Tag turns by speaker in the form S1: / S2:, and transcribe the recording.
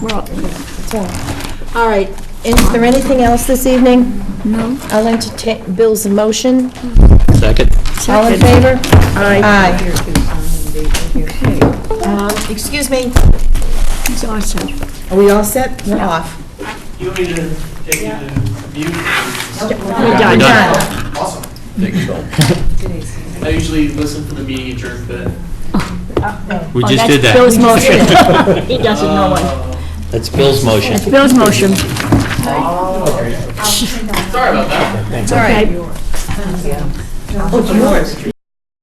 S1: We're all, it's all. All right, is there anything else this evening? No. I'll entertain Bill's motion.
S2: Second?
S1: All in favor? Aye.
S3: Aye.
S1: Um, Excuse me,
S3: Exhausted.
S1: are we all set? We're off.
S4: You want me to take you to mute?
S1: We're done.
S2: done.
S4: Awesome. I usually listen for the meeting adjourned, but.
S2: We just did that.
S5: Bill's motion. He doesn't know one.
S4: Uh,
S2: That's Bill's motion.
S5: Bill's motion.
S4: Sorry about that.
S1: It's all right.
S3: Oh, yours.